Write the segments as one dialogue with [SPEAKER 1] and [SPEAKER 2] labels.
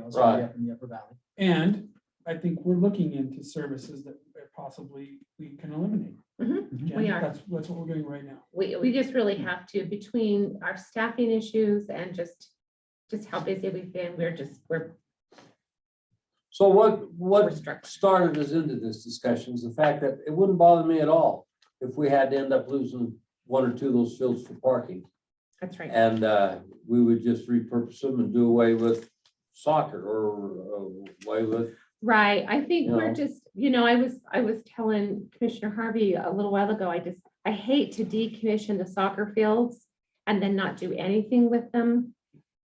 [SPEAKER 1] miles all the way
[SPEAKER 2] Right.
[SPEAKER 1] up in the upper valley.
[SPEAKER 3] And I think we're looking into services that possibly we can eliminate.
[SPEAKER 1] Mhm.
[SPEAKER 3] Jen,
[SPEAKER 4] We are.
[SPEAKER 3] That's, that's what we're doing right now.
[SPEAKER 4] We, we just really have to, between our staffing issues and just, just how busy we've been, we're just, we're,
[SPEAKER 2] So what,
[SPEAKER 4] we're
[SPEAKER 2] what
[SPEAKER 4] struck.
[SPEAKER 2] started us into this discussion is the fact that it wouldn't bother me at all if we had to end up losing one or two of those fields for parking.
[SPEAKER 4] That's right.
[SPEAKER 2] And uh, we would just repurpose them and do away with soccer or uh, away with,
[SPEAKER 4] Right. I think
[SPEAKER 2] Yeah.
[SPEAKER 4] we're just, you know, I was, I was telling Commissioner Harvey a little while ago, I just, I hate to decommission the soccer fields and then not do anything with them.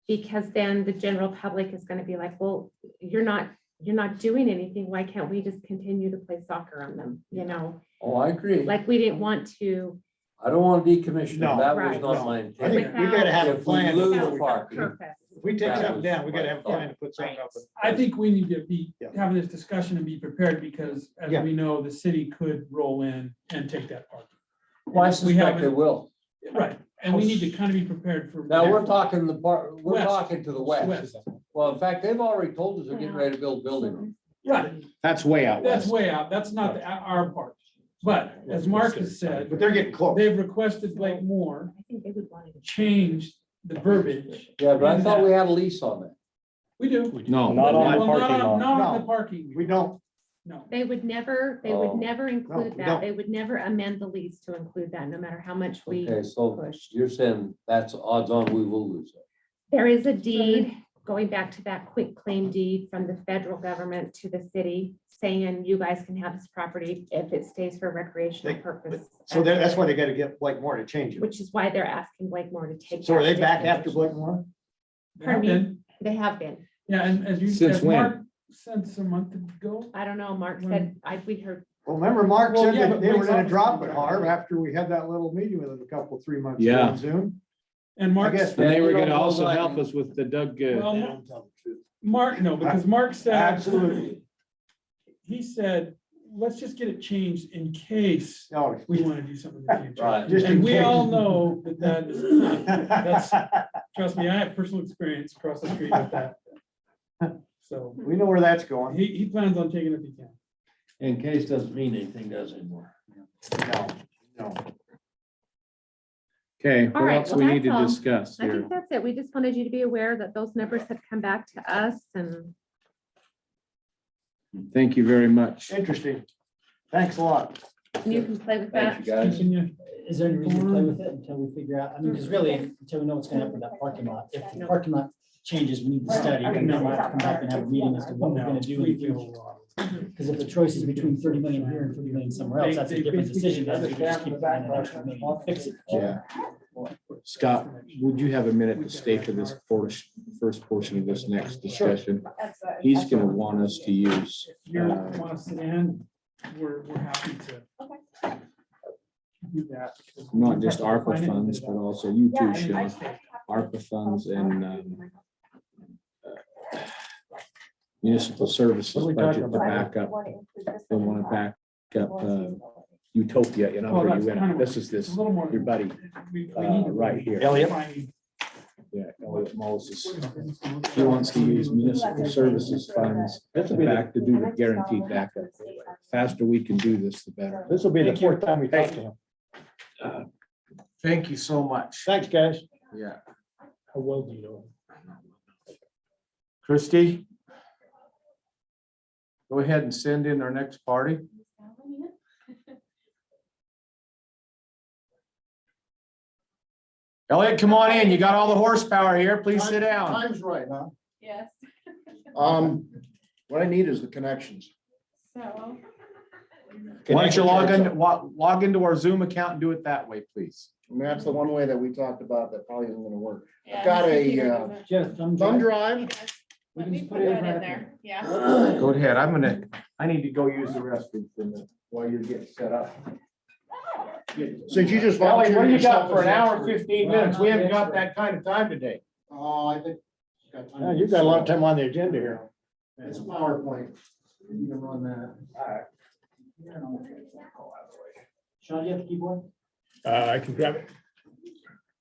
[SPEAKER 4] Because then the general public is gonna be like, well, you're not, you're not doing anything. Why can't we just continue to play soccer on them? You know,
[SPEAKER 2] oh, I agree.
[SPEAKER 4] like we didn't want to.
[SPEAKER 2] I don't want to decommission them.
[SPEAKER 1] No,
[SPEAKER 2] That was
[SPEAKER 4] right,
[SPEAKER 2] not
[SPEAKER 1] no.
[SPEAKER 2] my
[SPEAKER 1] I
[SPEAKER 2] intent.
[SPEAKER 1] think we gotta have a
[SPEAKER 2] If we
[SPEAKER 1] plan.
[SPEAKER 2] lose
[SPEAKER 1] before we-
[SPEAKER 2] park.
[SPEAKER 4] Purpose.
[SPEAKER 1] If we take
[SPEAKER 2] That
[SPEAKER 1] something
[SPEAKER 2] was
[SPEAKER 1] down, we gotta have a
[SPEAKER 2] my
[SPEAKER 1] plan to put something
[SPEAKER 4] Right.
[SPEAKER 1] up. with.
[SPEAKER 3] I think we need to be
[SPEAKER 1] Yeah.
[SPEAKER 3] having this discussion and be prepared because as
[SPEAKER 1] Yeah.
[SPEAKER 3] we know, the city could roll in and take that park.
[SPEAKER 2] Well, I
[SPEAKER 3] And we
[SPEAKER 2] suspect they
[SPEAKER 3] haven't-
[SPEAKER 2] will.
[SPEAKER 3] Right, and we need to kind of be prepared for.
[SPEAKER 2] Now, we're talking the part, we're
[SPEAKER 3] West.
[SPEAKER 2] talking to the west.
[SPEAKER 3] West.
[SPEAKER 2] Well, in fact, they've already told us they're getting
[SPEAKER 4] Wow.
[SPEAKER 2] ready to build buildings.
[SPEAKER 3] Right,
[SPEAKER 5] That's way out
[SPEAKER 3] that's
[SPEAKER 5] west.
[SPEAKER 3] way out, that's not the- our part, but as Mark has said,
[SPEAKER 1] But they're getting close.
[SPEAKER 3] they've requested Blake Moore
[SPEAKER 4] I think they would want to.
[SPEAKER 3] change the verbiage.
[SPEAKER 2] Yeah, but I thought we had a lease on that.
[SPEAKER 3] We do.
[SPEAKER 5] No.
[SPEAKER 6] Not on
[SPEAKER 3] Well,
[SPEAKER 6] the parking lot.
[SPEAKER 3] Not on the
[SPEAKER 1] No.
[SPEAKER 3] parking.
[SPEAKER 1] We don't,
[SPEAKER 3] No,
[SPEAKER 4] They would never, they
[SPEAKER 2] Oh.
[SPEAKER 4] would never include
[SPEAKER 1] we don't.
[SPEAKER 4] that. They would never amend the lease to include that, no matter how much we
[SPEAKER 2] Okay, so
[SPEAKER 4] pushed.
[SPEAKER 2] you're saying that's odds on we will lose it.
[SPEAKER 4] There is a deed, going back to that quick claim deed from the federal government to the city, saying you guys can have this property if it stays for recreational
[SPEAKER 1] They-
[SPEAKER 4] purpose.
[SPEAKER 1] so that- that's why they gotta get Blake Moore to change it.
[SPEAKER 4] Which is why they're asking Blakemore to take.
[SPEAKER 1] So are
[SPEAKER 4] that
[SPEAKER 1] they back
[SPEAKER 4] definition.
[SPEAKER 1] after Blake Moore?
[SPEAKER 3] they have been.
[SPEAKER 4] They have been.
[SPEAKER 3] yeah, and as you.
[SPEAKER 5] Since
[SPEAKER 3] as
[SPEAKER 5] when?
[SPEAKER 3] Mark Since a month ago.
[SPEAKER 4] I don't know, Mark said,
[SPEAKER 3] When-
[SPEAKER 4] I, we heard,
[SPEAKER 1] Well, remember Mark
[SPEAKER 3] Well,
[SPEAKER 1] said
[SPEAKER 3] yeah,
[SPEAKER 1] that
[SPEAKER 3] but
[SPEAKER 1] they were
[SPEAKER 3] Blake's
[SPEAKER 1] gonna
[SPEAKER 3] office-
[SPEAKER 1] drop it, Harv, after we had that little meeting with him a couple, three months ago
[SPEAKER 5] Yeah.
[SPEAKER 1] on Zoom.
[SPEAKER 3] And Mark,
[SPEAKER 1] guess-
[SPEAKER 5] And
[SPEAKER 2] Yeah,
[SPEAKER 5] they
[SPEAKER 2] you
[SPEAKER 5] were
[SPEAKER 2] don't
[SPEAKER 5] gonna
[SPEAKER 2] know
[SPEAKER 5] also
[SPEAKER 2] that.
[SPEAKER 5] help us with the Doug, uh,
[SPEAKER 3] well, Ma- Mark, no, because Mark said.
[SPEAKER 1] Absolutely.
[SPEAKER 3] He said, let's just get it changed in case
[SPEAKER 1] No.
[SPEAKER 3] we want to do something in the future.
[SPEAKER 2] Right.
[SPEAKER 1] Just in
[SPEAKER 3] And we all
[SPEAKER 1] case.
[SPEAKER 3] know that that is, not- trust me, I have personal experience across the street with that. So
[SPEAKER 1] We know where that's going.
[SPEAKER 3] he, he plans on taking it if he can.
[SPEAKER 5] in case doesn't mean anything, does anymore.
[SPEAKER 1] No, no.
[SPEAKER 5] Okay,
[SPEAKER 4] All
[SPEAKER 5] what
[SPEAKER 4] right,
[SPEAKER 5] else
[SPEAKER 4] well,
[SPEAKER 5] we
[SPEAKER 4] that's
[SPEAKER 5] need to
[SPEAKER 4] all.
[SPEAKER 5] discuss
[SPEAKER 4] I
[SPEAKER 5] here?
[SPEAKER 4] think that's it. We just wanted you to be aware that those numbers have come back to us and.
[SPEAKER 5] Thank you very much.
[SPEAKER 1] Interesting. Thanks a lot.
[SPEAKER 4] And you can play with that.
[SPEAKER 2] Thank you, guys.
[SPEAKER 3] Continue.
[SPEAKER 6] Is there any reason to play with it until we figure out, I mean, because really, until we know what's gonna happen with that parking lot, if the parking lot changes, we need to study, and then we'll have to come back and have a meeting as to what we're
[SPEAKER 3] No,
[SPEAKER 6] gonna do
[SPEAKER 3] we
[SPEAKER 6] in the future.
[SPEAKER 3] will. uh,
[SPEAKER 6] Because if the choice is between thirty million here and thirty million somewhere else, that's a different decision. than if we just keep buying an extra million and Fix it.
[SPEAKER 5] Yeah. Scott, would you have a minute to stay for this first, first portion of this next discussion? He's gonna want us to use.
[SPEAKER 3] If you
[SPEAKER 5] Uh,
[SPEAKER 3] want us to end, we're, we're happy to. Do that.
[SPEAKER 5] not just ARPA funds, but also you two, Sean, ARPA funds and um, municipal services budget to back up, they want to back up uh, Utopia, you know, where you went, out. this is
[SPEAKER 3] It's
[SPEAKER 5] this,
[SPEAKER 3] a little more.
[SPEAKER 5] your buddy,
[SPEAKER 3] We- we need
[SPEAKER 5] uh,
[SPEAKER 3] to-
[SPEAKER 5] right here.
[SPEAKER 1] Elliot.
[SPEAKER 3] Finding-
[SPEAKER 5] Yeah, Elliot Moses, he wants to use municipal services funds to back to do the guaranteed backup. Faster we can do this, the better.
[SPEAKER 1] uh, This will be the
[SPEAKER 6] Thank you.
[SPEAKER 1] fourth time we talked to him.
[SPEAKER 5] Thank you so much.
[SPEAKER 1] Thanks, guys.
[SPEAKER 5] Yeah.
[SPEAKER 6] How well do you know?
[SPEAKER 5] Christie? Go ahead and send in our next party. Elliot, come on in. You got all the horsepower here. Please sit down.
[SPEAKER 7] Time's right, huh?
[SPEAKER 8] Yes,
[SPEAKER 7] Um, what I need is the connections.
[SPEAKER 8] so
[SPEAKER 5] Why don't you log in, wa- log into our Zoom account and do it that way, please?
[SPEAKER 7] And that's the one way that we talked about that probably isn't gonna work.
[SPEAKER 8] yeah,
[SPEAKER 7] got
[SPEAKER 8] this
[SPEAKER 7] a,
[SPEAKER 8] computer
[SPEAKER 7] uh,
[SPEAKER 8] doesn't-
[SPEAKER 6] Jeff, thumb
[SPEAKER 7] Thumb
[SPEAKER 6] drive.
[SPEAKER 7] drive,
[SPEAKER 8] Let
[SPEAKER 6] can
[SPEAKER 8] me
[SPEAKER 6] just
[SPEAKER 8] put
[SPEAKER 6] put it
[SPEAKER 8] that
[SPEAKER 6] right
[SPEAKER 8] in
[SPEAKER 6] up
[SPEAKER 8] there, yeah.
[SPEAKER 5] Go ahead. I'm gonna, I need to go use the restroom for a minute while you're getting set up.
[SPEAKER 7] since you just.
[SPEAKER 5] Elliot, what do you got
[SPEAKER 7] volunteered yourself
[SPEAKER 5] for
[SPEAKER 7] as
[SPEAKER 5] an hour and
[SPEAKER 7] expert.
[SPEAKER 5] fifteen minutes? We haven't got that kind of time today.
[SPEAKER 7] Oh, I think. you've got time.
[SPEAKER 1] Yeah, You've got a lot of time on the agenda here.
[SPEAKER 7] It's PowerPoint. You can run that.
[SPEAKER 6] Sean, do you have the keyboard?
[SPEAKER 9] Uh, I can grab it.